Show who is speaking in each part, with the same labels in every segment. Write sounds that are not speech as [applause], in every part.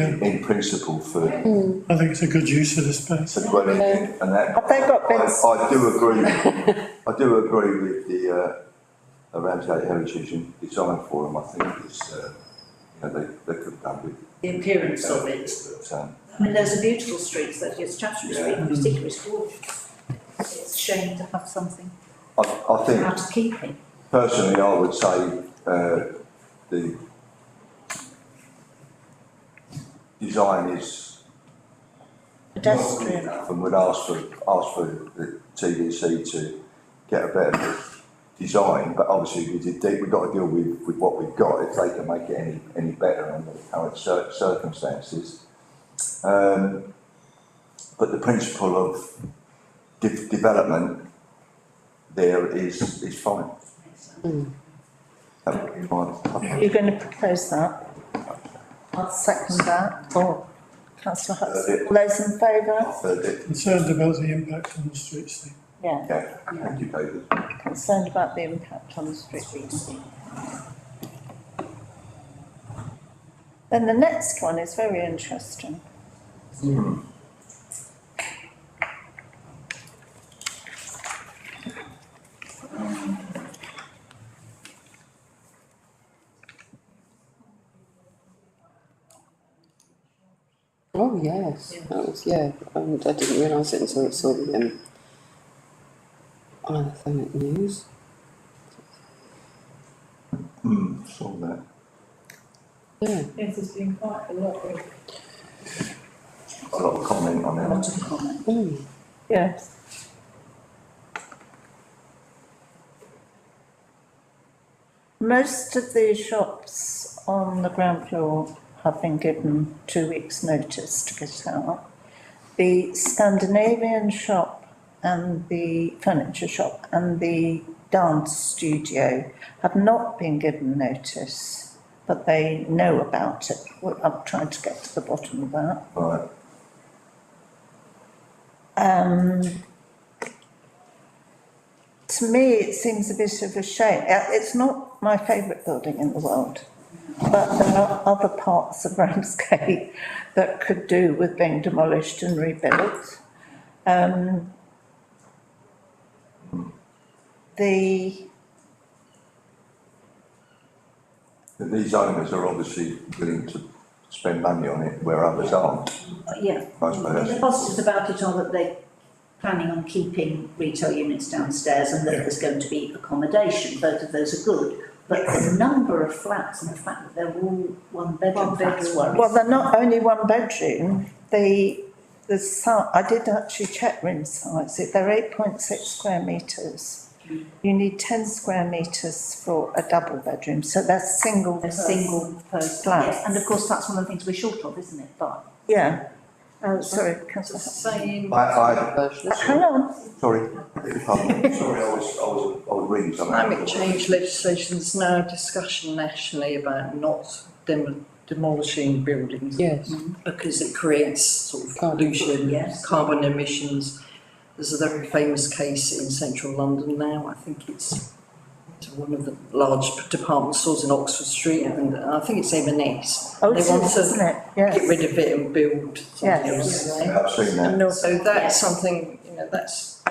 Speaker 1: in principle for,
Speaker 2: I think it's a good use of the space.
Speaker 1: for dwelling in, and that.
Speaker 3: Have they got
Speaker 1: Hmm. I-
Speaker 3: beds?
Speaker 1: I do agree, I do agree with the, uh, uh, Ramsgate Heritage and Design Forum, I think it's, uh, you know, they, they could have done with.
Speaker 4: the appearance of it.
Speaker 1: But, um,
Speaker 4: I mean, those are beautiful streets, that is Chatham Street in particular is gorgeous. It's a shame to have something
Speaker 1: I, I
Speaker 4: out
Speaker 1: think
Speaker 4: of keeping.
Speaker 1: personally, I would say, uh, the design is not good
Speaker 4: Pedestrian,
Speaker 1: enough and would ask for, ask for the TDC to get a better design, but obviously we did, de- we've got to deal with, with what we've got, if they can make it any, any better under the current cir- circumstances. Um, but the principle of de- development there is, is fine. That would be fine.
Speaker 3: You're going to propose that? I'll second that, or councillor Hudson, all those in favour?
Speaker 1: Third it,
Speaker 2: Concerned about the impact on the streets thing.
Speaker 3: Yeah,
Speaker 1: yeah, thank you, David.
Speaker 3: concerned about the impact on the street. Then the next one is very interesting.
Speaker 5: Oh, yes, that was, yeah, um, I didn't realise it until I saw the, um, Isle of Thanet news.
Speaker 1: Hmm, saw that.
Speaker 5: Yeah,
Speaker 6: Yes, there's been quite a lot of
Speaker 1: A lot of comment on
Speaker 4: a
Speaker 1: that.
Speaker 4: lot of comment.
Speaker 5: mm,
Speaker 3: Yes. Most of the shops on the ground floor have been given two weeks' notice to get out. The Scandinavian shop and the furniture shop and the dance studio have not been given notice, but they know about it. Well, I'm trying to get to the bottom of that.
Speaker 1: Right,
Speaker 3: Um, to me, it seems a bit of a shame. Uh, It's not my favourite building in the world, but there are other parts of [laughs] Ramsgate that could do with being demolished and rebuilt. Um, the,
Speaker 1: But these owners are obviously willing to spend money on it where others aren't,
Speaker 4: Yeah,
Speaker 1: I suppose.
Speaker 4: the positives about it are that they're planning on keeping retail units downstairs and that there's going to be accommodation, both of those are good. But the number of flats and the fact that they're all one bedroom flats worries.
Speaker 3: well, they're not only one bedroom, the, the si- I did actually check room size, they're eight point six square metres. You need ten square metres for a double bedroom, so they're single.
Speaker 4: A
Speaker 3: person.
Speaker 4: single person,
Speaker 3: Flats.
Speaker 4: yes, and of course, that's one of the things we're short of, isn't it, but.
Speaker 3: Yeah,
Speaker 6: Uh,
Speaker 3: oh, sorry, councillor.
Speaker 6: saying.
Speaker 1: I, I,
Speaker 5: version.
Speaker 3: Hutton. Hang on,
Speaker 1: sorry, pardon me, sorry, I was, I was, I was reading something.
Speaker 6: Climate change legislation is now a discussion nationally about not dem- demolishing buildings.
Speaker 5: yes,
Speaker 6: Because it creates sort of
Speaker 5: Carbon.
Speaker 6: pollution,
Speaker 4: Yes.
Speaker 6: carbon emissions. There's a very famous case in central London now, I think it's to one of the large department stores in Oxford Street, and I think it's M&S.
Speaker 3: oh,
Speaker 6: They
Speaker 3: it's,
Speaker 6: want to
Speaker 3: isn't it,
Speaker 6: Get
Speaker 3: yes,
Speaker 6: rid of it and build something
Speaker 3: Yes.
Speaker 6: else.
Speaker 1: Yeah, I've seen that.
Speaker 3: no,
Speaker 6: So that's
Speaker 4: Yes.
Speaker 6: something, you know, that's.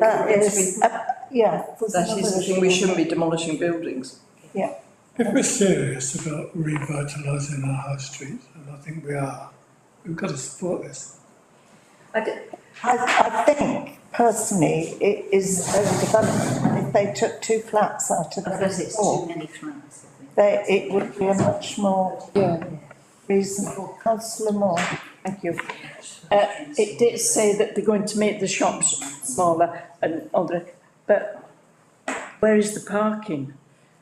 Speaker 3: that is, uh, yeah. there's
Speaker 6: That is the
Speaker 3: another
Speaker 6: thing, we
Speaker 3: issue.
Speaker 6: shouldn't be demolishing buildings.
Speaker 2: If we're serious about revitalising our high streets, and I think we are, we've got to support this.
Speaker 4: I d-
Speaker 3: I, I think personally, it is overdevelopment, and if they took two flats out of the
Speaker 4: I guess it's
Speaker 3: floor,
Speaker 4: too many flats, I think.
Speaker 3: that it would be a much more
Speaker 5: yeah.
Speaker 3: reasonable, councillor Moore, thank you.
Speaker 7: Uh, it did say that they're going to make the shops smaller and all the, but where is the parking?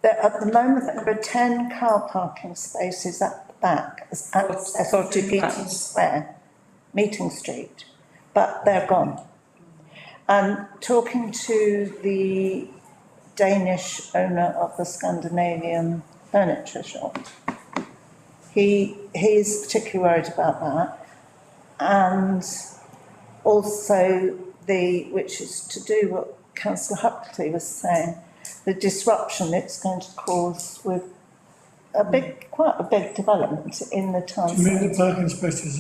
Speaker 3: That at the moment, there are ten car parking spaces at the back, as access to
Speaker 7: Forty
Speaker 3: Meeting
Speaker 7: flats.
Speaker 3: Square, Meeting Street, but they're gone. And talking to the Danish owner of the Scandinavian furniture shop, he, he is particularly worried about that. And also the, which is to do what councillor Huxley was saying, the disruption it's going to cause with a big, quite a big development in the town
Speaker 2: Do you mean
Speaker 3: centre.
Speaker 2: the parking spaces